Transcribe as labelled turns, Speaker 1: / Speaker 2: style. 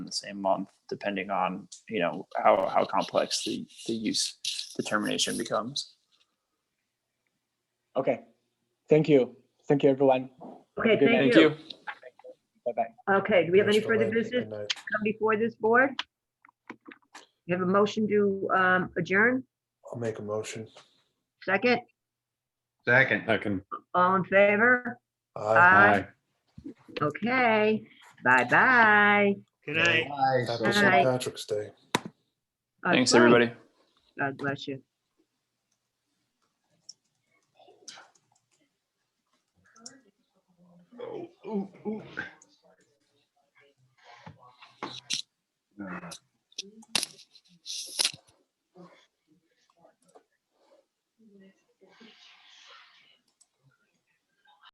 Speaker 1: the same month, depending on, you know, how, how complex the, the use determination becomes.
Speaker 2: Okay. Thank you. Thank you, everyone.
Speaker 3: Okay,
Speaker 2: Good
Speaker 3: thank
Speaker 2: night.
Speaker 3: you.
Speaker 2: Bye-bye.
Speaker 3: Okay, do we have any
Speaker 4: Thanks for
Speaker 3: further
Speaker 4: letting me
Speaker 3: business
Speaker 4: know.
Speaker 3: to come before this board? We have a motion to um, adjourn,
Speaker 4: I'll make a motion.
Speaker 3: second,
Speaker 5: Second.
Speaker 6: Second.
Speaker 3: all in favor?
Speaker 4: Aye.
Speaker 3: Aye. Okay, bye-bye.
Speaker 7: Good night.
Speaker 5: Aye, so-
Speaker 4: Happy St.
Speaker 3: Aye.
Speaker 4: Patrick's Day.
Speaker 3: God
Speaker 1: Thanks,
Speaker 3: bless.
Speaker 1: everybody.
Speaker 3: God bless you.
Speaker 5: Ooh, ooh, ooh.